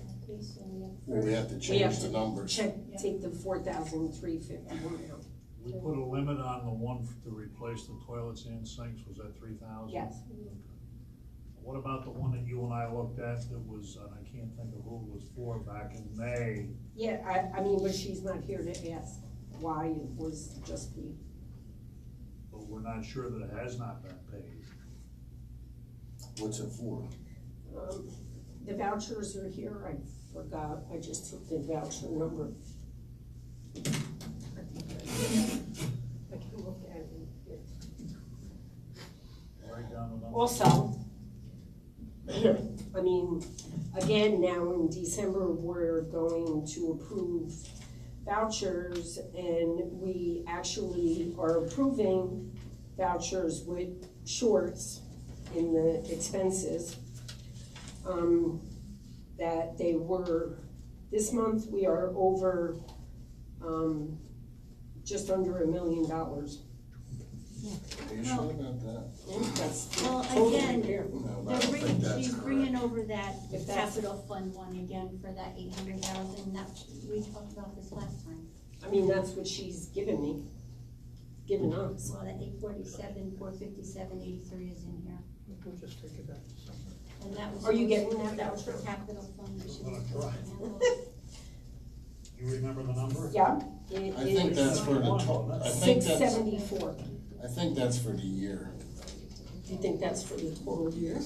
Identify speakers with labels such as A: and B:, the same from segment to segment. A: increase and we
B: Well,
A: have.
B: we have to change the numbers.
C: Check, take the four thousand three fifty-one out,
D: We put a limit on the one f- to replace the toilets and sinks, was that three thousand?
C: yes.
D: What about the one that you and I looked at that was, and I can't think of who it was for, back in May?
C: Yeah, I, I mean, but she's not here to ask why it was just the,
D: But we're not sure that it has not been paid.
B: What's it for?
C: um, the vouchers are here, I forgot, I just took the voucher number. I can look at it here.
D: Write down the number.
C: Also, I mean, again, now in December, we're going to approve vouchers and we actually are approving vouchers with shorts in the expenses. Um, that they were, this month, we are over, um, just under a million dollars.
B: Are you sure about that?
C: That's
A: Well,
C: totally
A: again,
C: fair.
B: No, I
A: They're
B: don't think
A: bringing,
B: that's
A: she's
B: correct.
A: bringing over that
C: If that's-
A: capital fund one again for that eight hundred thousand, that, we talked about this last time.
C: I mean, that's what she's given me, given us.
A: Well, that eight forty-seven, four fifty-seven, eighty-three is in here.
E: We'll just take it back to somewhere.
A: And that was.
C: Are you getting that
A: That was for capital fund. that she was supposed to
D: Well, right.
A: handle.
D: You remember the number?
C: Yeah, it
B: I think that's
C: is
B: for the to, I think
C: six
B: that's,
C: seventy-four.
B: I think that's for the year.
C: Do you think that's for the whole year?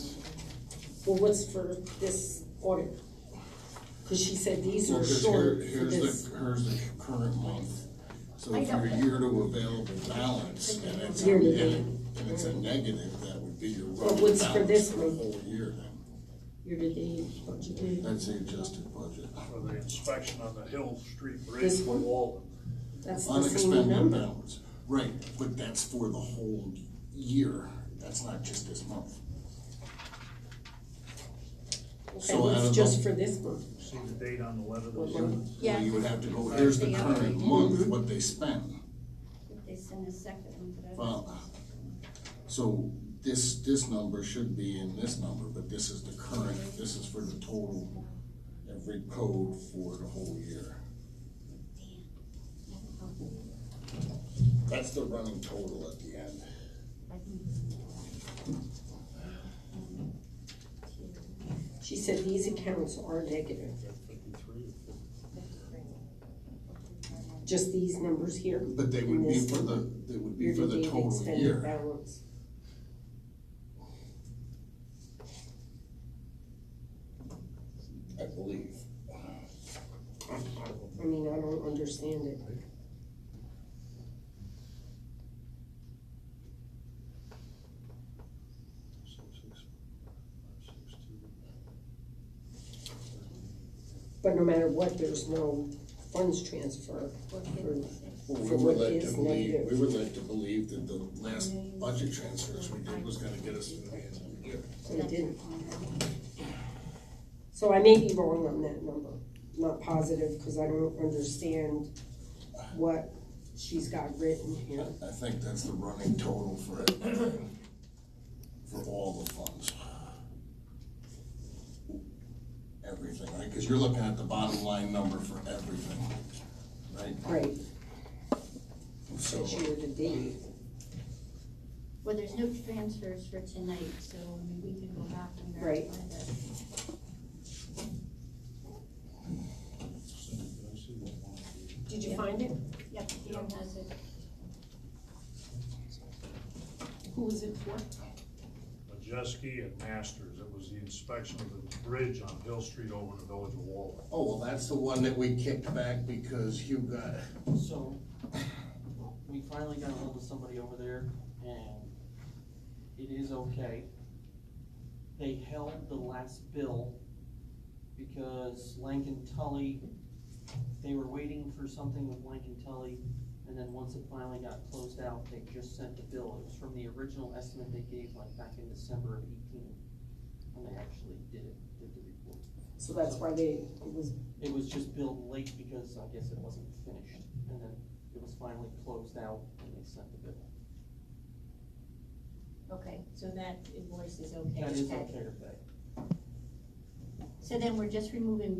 C: Well, what's for this audit? Cause she said these
B: Well,
C: are
B: 'cause here-
C: short for
B: here's
C: this
B: the, here's the current month. So
A: I
B: if
A: know.
B: your year to available balance and it's, a-
C: Year
B: and
C: to
B: it- and it's a negative, that would be your
C: But
B: running
C: what's for
B: balance
C: this
B: for the
C: month?
B: whole year then.
C: year-to-date budget.
B: That's the adjusted budget.
D: For the inspection on the Hill Street Bridge
C: This
D: for
C: one?
D: Walden.
C: That's the same
B: Unexpended
C: number.
B: balance, right, but that's for the whole year, that's not just this month. So
C: And
B: out
C: it's
B: of
C: just
B: the-
C: for this month.
D: See the date on the letter that was
C: What one?
D: sent?
A: Yeah.
B: So you would have to go, here's the
A: Yeah.
B: current month,
C: Mm-hmm.
B: what they spent.
A: If They sent a second one, but I don't.
B: Well, so this, this number should be in this number, but this is the current, this is for the total, every code for the whole year. That's the running total at the end.
C: She said these accounts are negative, just these numbers here.
B: But they would be for the, they would be for the
C: Year-to-date
B: total
C: expended
B: year.
C: balance.
B: I believe.
C: I mean, I don't understand it. But no matter what, there's no funds transfer.
A: Four fifty-six.
B: Well,
C: For
B: we
C: what
B: would like to
C: is
B: believe,
C: negative.
B: we would like to believe that the last budget transfers we did was gonna get us to the end of the year.
C: They didn't.
A: That's-
C: So I may be wrong on that number, not positive, because I don't understand what she's got written here.
B: I think that's the running total for it, for all the funds. Everything, right, because you're looking at the bottom line number for everything, right?
C: Right,
B: So,
C: year to date.
A: Well, there's no transfers for tonight, so I mean, we can go back and
C: Right.
A: verify that.
D: So, did I see what one it is?
C: Did you find it?
A: Yep, Dan has it.
C: Who was it for?
D: Majeski and Masters, it was the inspection of the bridge on Hill Street over the village of Walden.
B: oh, well, that's the one that we kicked back because Hugh got,
E: So, we finally got hold of somebody over there and it is okay. They held the last bill because Lankin Tully, they were waiting for something with Lankin Tully. And then once it finally got closed out, they just sent the bill. It was from the original estimate they gave like back in December of eighteen. When they actually did it, did the report.
C: So that's why they, it was,
E: It was just billed late because I guess it wasn't finished, and then it was finally closed out and they sent the bill.
A: Okay, so that invoice is okay.
E: That is
A: Okay.
E: okay to pay.
A: So then we're just removing